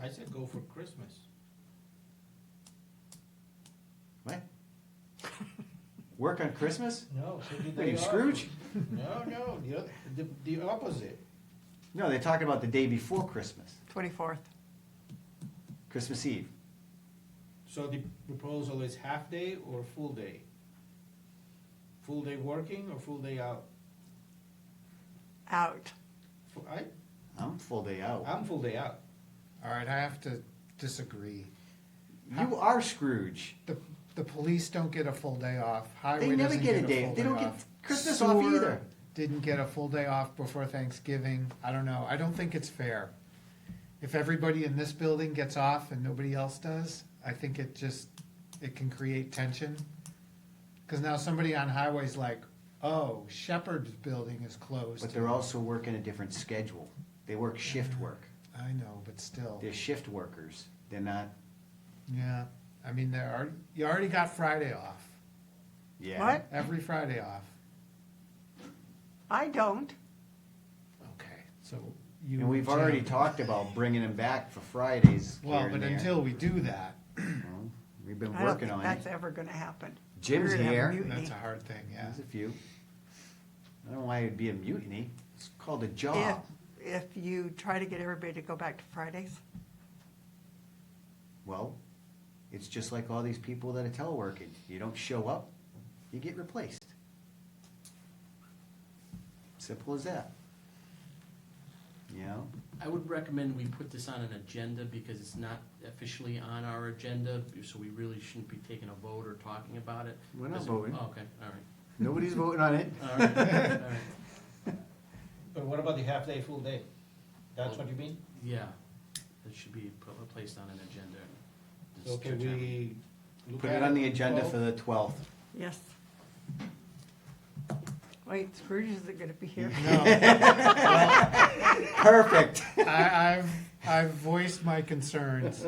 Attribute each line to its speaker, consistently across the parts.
Speaker 1: I said go for Christmas.
Speaker 2: What? Work on Christmas?
Speaker 1: No, so did
Speaker 2: What are
Speaker 1: they
Speaker 2: you,
Speaker 1: all-
Speaker 2: Scrooge?
Speaker 1: No, no, the, oth- the, the opposite.
Speaker 2: No, they talk about the day before Christmas,
Speaker 3: Twenty-fourth.
Speaker 2: Christmas Eve.
Speaker 1: So the proposal is half day or full day? Full day working or full day out?
Speaker 3: Out.
Speaker 1: Fu- I,
Speaker 2: I'm full day out.
Speaker 1: I'm full day out.
Speaker 4: All right, I have to disagree.
Speaker 2: You are Scrooge.
Speaker 4: The, the police don't get a full day off. Highway
Speaker 2: They never
Speaker 4: doesn't
Speaker 2: get a
Speaker 4: full
Speaker 2: day.
Speaker 4: day
Speaker 2: They don't get
Speaker 4: off.
Speaker 2: Christmas off
Speaker 4: Sewer
Speaker 2: either.
Speaker 4: Didn't get a full day off before Thanksgiving. I don't know. I don't think it's fair. If everybody in this building gets off and nobody else does, I think it just it can create tension. Because now somebody on highway's like, "Oh, Shepherd's building is closed."
Speaker 2: But they're also working a different schedule. They work shift work.
Speaker 4: I know, but still.
Speaker 2: They're shift workers. They're not,
Speaker 4: Yeah, I mean, there are you already got Friday off.
Speaker 2: yeah.
Speaker 3: What?
Speaker 4: Every Friday off.
Speaker 3: I don't.
Speaker 4: Okay, so you.
Speaker 2: And we've already
Speaker 4: Jim.
Speaker 2: talked about bringing them back for Fridays
Speaker 4: Well,
Speaker 2: here
Speaker 4: but
Speaker 2: and there.
Speaker 4: until we do that,
Speaker 2: Well, We've been
Speaker 3: I don't
Speaker 2: working
Speaker 3: think
Speaker 2: on
Speaker 3: that's
Speaker 2: it.
Speaker 3: ever gonna happen.
Speaker 2: Jim's
Speaker 3: We're gonna have a
Speaker 2: here.
Speaker 3: mutiny.
Speaker 4: that's a hard thing. Yeah.
Speaker 2: There's a few. I don't know why it'd be a mutiny. It's called a
Speaker 3: If,
Speaker 2: job.
Speaker 3: if you try to get everybody to go back to Fridays,
Speaker 2: Well, it's just like all these people that are teleworking. You don't show up, you get replaced. Simple as that. You know?
Speaker 5: I would recommend we put this on an agenda because it's not officially on our agenda, so we really shouldn't be taking a vote or talking about it.
Speaker 2: We're not
Speaker 5: Is it-
Speaker 2: voting.
Speaker 5: oh, Okay, all right.
Speaker 2: Nobody's voting on it.
Speaker 5: All right, all right.
Speaker 1: But what about the half day, full day? That's what you mean?
Speaker 5: Yeah, it should be pl- placed on an agenda. It's
Speaker 1: So can
Speaker 5: determined.
Speaker 1: we? look
Speaker 2: Put
Speaker 1: at
Speaker 2: it on the agenda
Speaker 1: well,
Speaker 2: for the twelfth.
Speaker 3: yes. Wait, Scrooge isn't gonna be here.
Speaker 4: No,
Speaker 2: Perfect.
Speaker 4: I, I've I've voiced my concerns.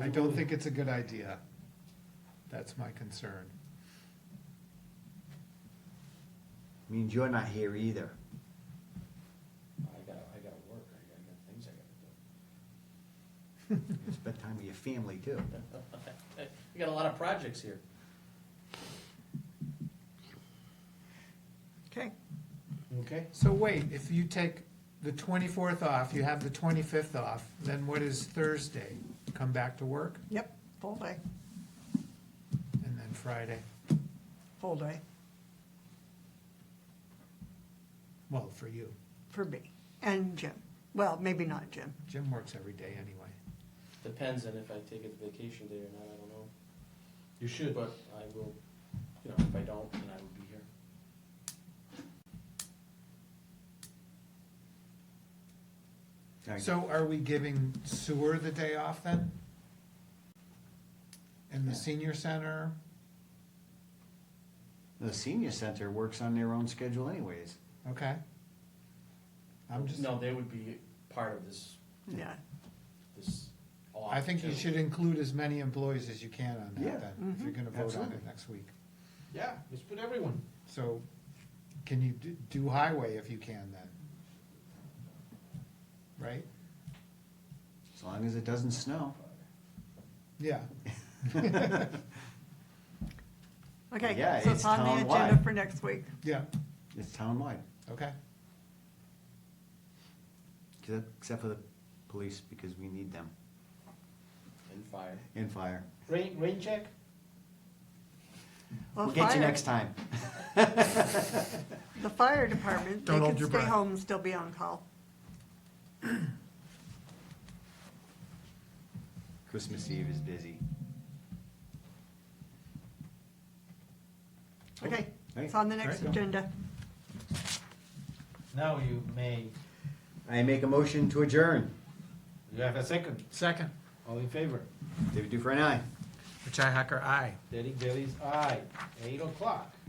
Speaker 4: I don't think it's a good idea. That's my concern.
Speaker 2: Means you're not here either.
Speaker 1: I gotta, I gotta work, I gotta, I got things I gotta
Speaker 2: It's spend time with your family too.
Speaker 5: We got a lot of projects here.
Speaker 3: Okay,
Speaker 1: do. Okay,
Speaker 4: So wait, if you take the twenty fourth off, you have the twenty fifth off. Then what is Thursday? Come back to work,
Speaker 3: yep, full day,
Speaker 4: and then Friday.
Speaker 3: full day
Speaker 4: Well, for you,
Speaker 3: for me and Jim. Well, maybe not Jim.
Speaker 4: Jim works every day anyway.
Speaker 5: Depends on if I take a vacation day or not, I don't know.
Speaker 1: you should.
Speaker 5: But I will, you know, if I don't, then I will be here.
Speaker 4: So are we giving sewer the day off then? And the senior center?
Speaker 2: The senior center works on their own schedule anyways.
Speaker 4: Okay. I'm just,
Speaker 5: No, they would be part of this,
Speaker 3: Yeah,
Speaker 5: this. off,
Speaker 4: I think you
Speaker 5: too.
Speaker 4: should include as many employees as you can on
Speaker 2: Yeah,
Speaker 4: that then, if you're gonna vote on
Speaker 2: absolutely.
Speaker 4: it next week.
Speaker 1: Yeah, let's put everyone.
Speaker 4: So can you d- do highway if you can then? Right?
Speaker 2: As long as it doesn't snow.
Speaker 4: Yeah.
Speaker 3: okay,
Speaker 2: Yeah,
Speaker 3: so
Speaker 2: it's
Speaker 3: it's on the
Speaker 2: townwide.
Speaker 3: agenda for next week.
Speaker 4: Yeah,
Speaker 2: It's townwide,
Speaker 4: okay.
Speaker 2: except except for the police because we need them
Speaker 5: And fire.
Speaker 2: and fire.
Speaker 1: Rain, rain check?
Speaker 3: Well,
Speaker 2: We'll get you
Speaker 3: fire-
Speaker 2: next time.
Speaker 3: The fire department, they
Speaker 4: Don't hold
Speaker 3: can
Speaker 4: your
Speaker 3: stay
Speaker 4: breath.
Speaker 3: home and still be on call.
Speaker 2: Christmas Eve is busy.
Speaker 3: Okay,
Speaker 2: Hey,
Speaker 3: it's on the next
Speaker 4: great.
Speaker 3: agenda.
Speaker 1: Now you may,
Speaker 2: I make a motion to adjourn.
Speaker 1: you have a second.
Speaker 4: Second,
Speaker 1: All in favor?
Speaker 2: David Dufresne, aye.
Speaker 4: Richi Hacker, aye.
Speaker 1: Derek Bailey's aye. Eight o'clock.